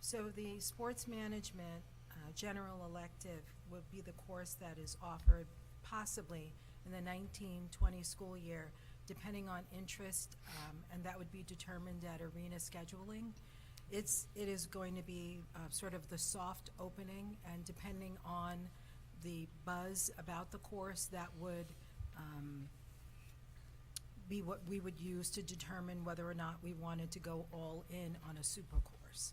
So the sports management uh, general elective would be the course that is offered possibly in the 1920 school year, depending on interest, um, and that would be determined at arena scheduling. It's, it is going to be uh, sort of the soft opening, and depending on the buzz about the course, that would um, be what we would use to determine whether or not we wanted to go all in on a super course.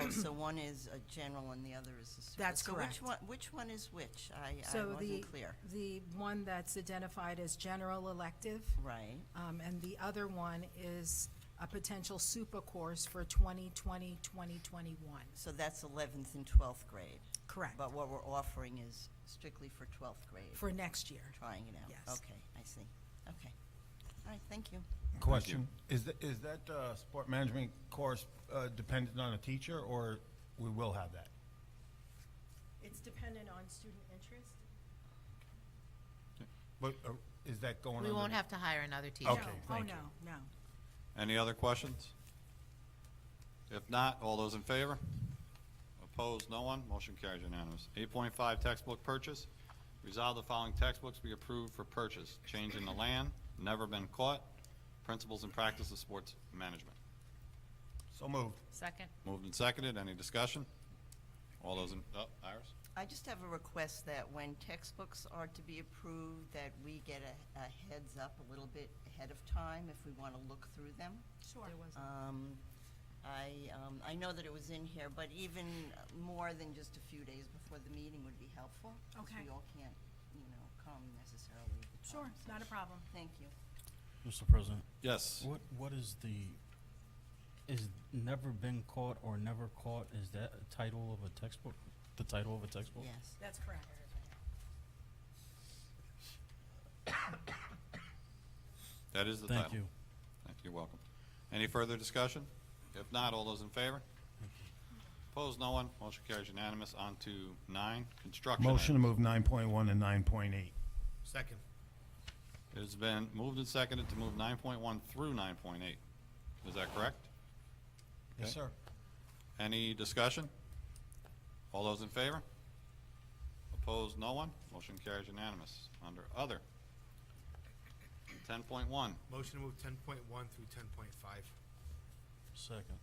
Oh, so one is a general and the other is a super. That's correct. So which one, which one is which? I, I So the, wasn't clear. the one that's identified as general elective, Right, um, and the other one is a potential super course for 2020, 2021. so that's eleventh and twelfth grade. Correct. But what we're offering is strictly for twelfth grade, For next year. trying it out. Yes. Okay, I see. Okay. All right, thank you. Question, is that, is that uh, sport management course uh, dependent on a teacher, or we will have that? It's dependent on student interest? But uh, is that going on? We won't have to hire another teacher. Okay, No, oh, thank you. no, no. Any other questions? If not, all those in favor? Opposed, no one. Motion carries unanimous. Eight point five, textbook purchase. Resolve the following textbooks be approved for purchase. Change in the land, never been caught, principles and practice of sports management. So moved. Second? Moved and seconded. Any discussion? All those in, oh, Iris? I just have a request that when textbooks are to be approved, that we get a, a heads up a little bit ahead of time if we want to look through them. Sure. There was Um, I, um, I know that it was in here, but even more than just a few days before the meeting would be helpful. 'cause Okay. we all can't, you know, come necessarily at the Sure, time, so- not a problem. Thank you. Mr. President, Yes. what, what is the, is never been caught or never caught, is that a title of a textbook? The title of a textbook? Yes. That's correct. That is the title. Thank you. Thank you, you're welcome. Any further discussion? If not, all those in favor? Opposed, no one. Motion carries unanimous. On to nine, construction. Motion to move items. nine point one and nine point eight. Second. It's been moved and seconded to move nine point one through nine point eight. Is that correct? Yes, Okay. sir. Any discussion? All those in favor? Opposed, no one. Motion carries unanimous. Under other. Ten point one, Motion to move ten point one through ten point five. Second.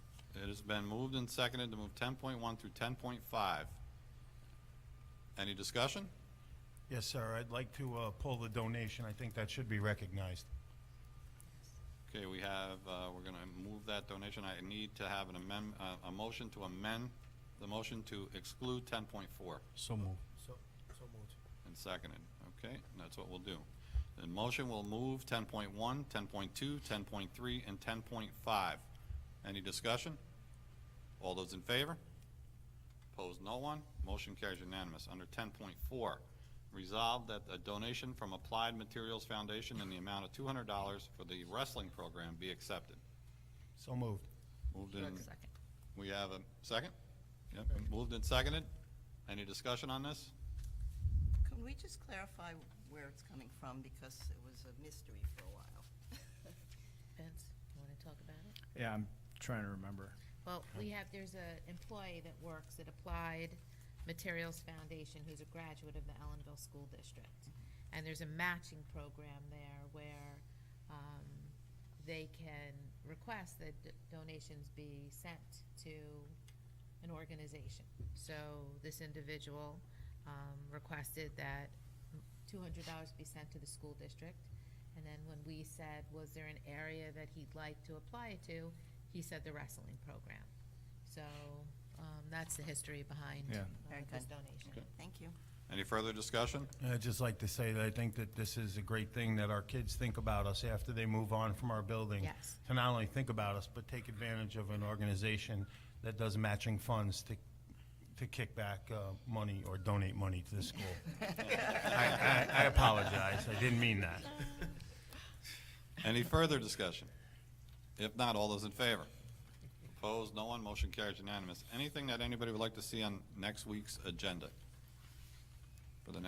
it has been moved and seconded to move ten point one through ten point five. Any discussion? Yes, sir. I'd like to uh, pull the donation. I think that should be recognized. Okay, we have, uh, we're gonna move that donation. I need to have an amend, uh, a motion to amend the motion to exclude ten point four So moved. So, so moved. and seconded, okay? And that's what we'll do. The motion will move 10.1, 10.2, 10.3, and ten point five. Any discussion? All those in favor? Opposed, no one. Motion carries unanimous. Under ten point four, resolved that a donation from Applied Materials Foundation in the amount of two hundred dollars for the wrestling program be accepted. So moved. Moved in, second. we have a second? Yep, moved and seconded. Any discussion on this? Can we just clarify where it's coming from, because it was a mystery for a while? Vince, you want to talk about it? Yeah, I'm trying to remember. Well, we have, there's a employee that works at Applied Materials Foundation who's a graduate of the Ellenville School District. And there's a matching program there where um, they can request that d- donations be sent to an organization. So this individual um, requested that two hundred dollars be sent to the school district. And then when we said, was there an area that he'd like to apply it to, he said the wrestling program. So, um, that's the history behind Yeah. uh, Very this good. donation. Thank you. Any further discussion? I'd just like to say that I think that this is a great thing that our kids think about us after they move on from our building. Yes. To not only think about us, but take advantage of an organization that does matching funds to, to kick back uh, money or donate money to the school. I, I I apologize, I didn't mean that. Any further discussion? If not, all those in favor? Opposed, no one, motion carries unanimous. Anything that anybody would like to see on next week's agenda?